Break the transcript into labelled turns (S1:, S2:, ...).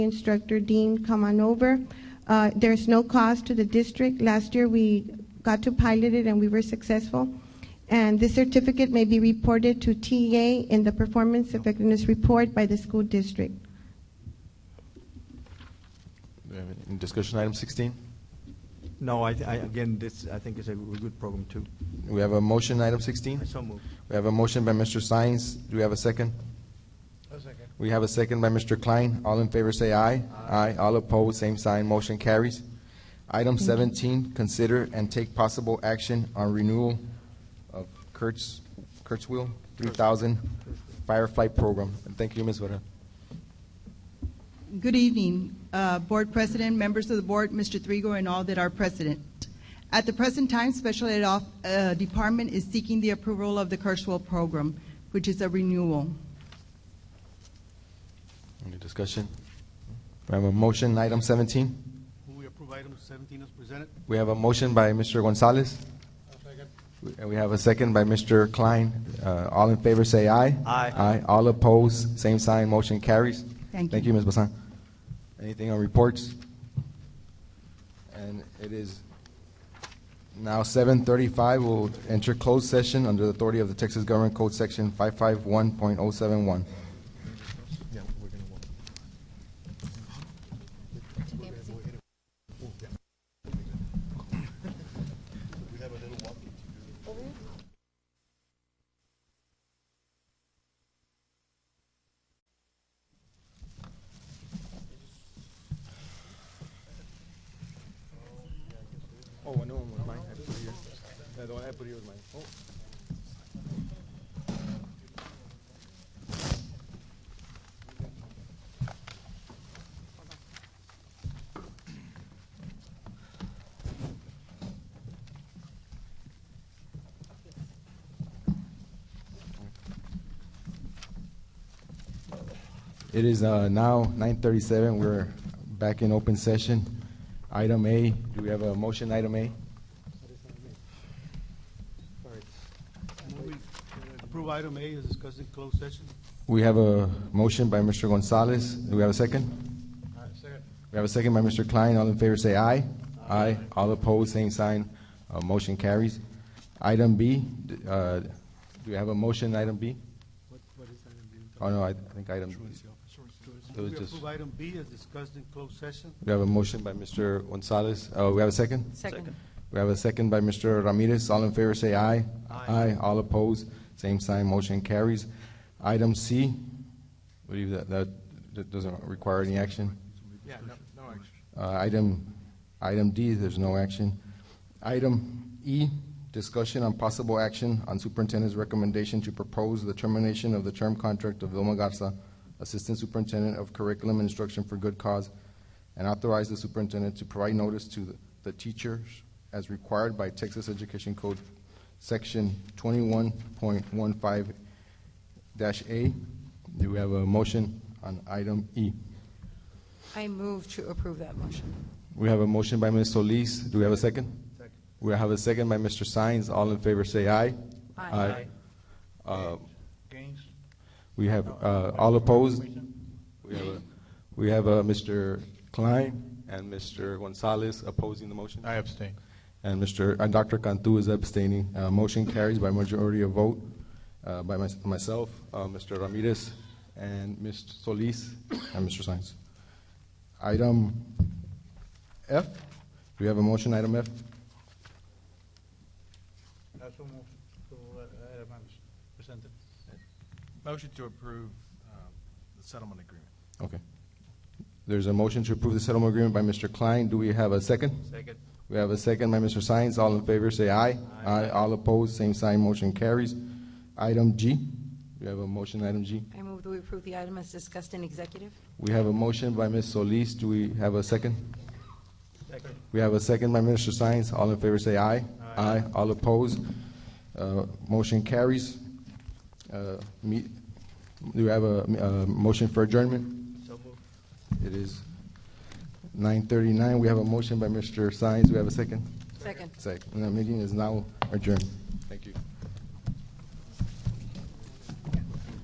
S1: instructor deemed come on over. Uh, There's no cost to the district. Last year, we got to pilot it and we were successful. And this certificate may be reported to TEA in the performance effectiveness report by the school district.
S2: Do we have any Discussion item 16.
S3: No, I, I, again, this, I think is a good program too.
S2: We have a motion, item 16.
S3: I so move.
S2: We have a motion by Mr. Sines. Do we have a second? We have a second by Mr. Klein. All in favor say aye. Aye. All opposed, same sign. Motion carries. Item 17, consider and take possible action on renewal of Kurtz, Kurtzwil 3000 Firefly Program. And thank you, Ms. Vera.
S4: Good evening, uh, Board President, members of the Board, Mr. Trigo, and all that are present. At the present time, Special Ed Off- uh, Department is seeking the approval of the Kirschwell program, which is a renewal.
S2: Any discussion? We have a motion, item 17.
S5: Move we approve item 17 as presented.
S2: We have a motion by Mr. Gonzalez. And we have a second by Mr. Klein. Uh, all in favor say aye.
S3: Aye.
S2: Aye. All opposed, same sign, motion carries.
S4: Thank you.
S2: Thank you, Ms. Basan. Anything on reports? And it is now seven thirty-five. We'll enter closed session under the authority of the Texas Government Code Section five-five-one point oh oh-seven-one. Oh, I know one was mine. I put it here. Yeah, the one I put here was mine. Oh. It is uh, now nine thirty-seven. We're back in open session. Item A, do we have a motion, item A?
S5: Move we approve item A as discussed in closed session.
S2: We have a motion by Mr. Gonzalez. Do we have a second?
S5: Second.
S2: We have a second by Mr. Klein. All in favor say aye. Aye. All opposed, same sign. Uh, Motion carries. Item B, d- uh, do we have a motion, item B? Oh, no, I I think item, it was
S5: We
S2: just,
S5: approve item B as discussed in closed session.
S2: we have a motion by Mr. Gonzalez. Uh, We have a second?
S6: Second.
S2: We have a second by Mr. Ramirez. All in favor say aye. Aye. All opposed, same sign, motion carries. Item C, I believe that, that that doesn't require any action.
S5: Yeah, no, no action.
S2: Uh, Item, item D, there's no action. Item E, discussion on possible action on superintendent's recommendation to propose the termination of the term contract of Vilma Garza, Assistant Superintendent of Curriculum and Instruction for Good Cause, and authorize the superintendent to provide notice to the- the teachers as required by Texas Education Code, Section twenty-one point one five A. Do we have a motion on item E?
S6: I move to approve that motion.
S2: We have a motion by Ms. Solis. Do we have a second?
S5: Second.
S2: We have a second by Mr. Sines. All in favor say aye.
S6: Aye.
S2: Uh,
S5: Gaines?
S2: We have, uh, all opposed? We have, a- we have uh, Mr. Klein and Mr. Gonzalez opposing the motion.
S7: I abstain.
S2: And Mr., uh, Dr. Cantu is abstaining. Uh, Motion carries by majority of vote uh, by mys- myself, uh, Mr. Ramirez, and Ms. Solis, and Mr. Sines. Item F, do we have a motion, item F?
S5: I so move to item as presented.
S7: Motion to approve um, the settlement agreement.
S2: Okay. There's a motion to approve the settlement agreement by Mr. Klein. Do we have a second?
S5: Second.
S2: We have a second by Mr. Sines. All in favor, say aye. Aye. All opposed, same sign, motion carries. Item G, we have a motion, item G.
S6: I move that we approve the item as discussed in executive.
S2: We have a motion by Ms. Solis. Do we have a second?
S5: Second.
S2: We have a second by Mr. Sines. All in favor say aye. Aye. All opposed? Uh, Motion carries. Uh, me- Do we have a uh, motion for adjournment?
S5: So move.
S2: It is 9:39. We have a motion by Mr. Sines. We have a second?
S6: Second.
S2: Second. And The meeting is now adjourned.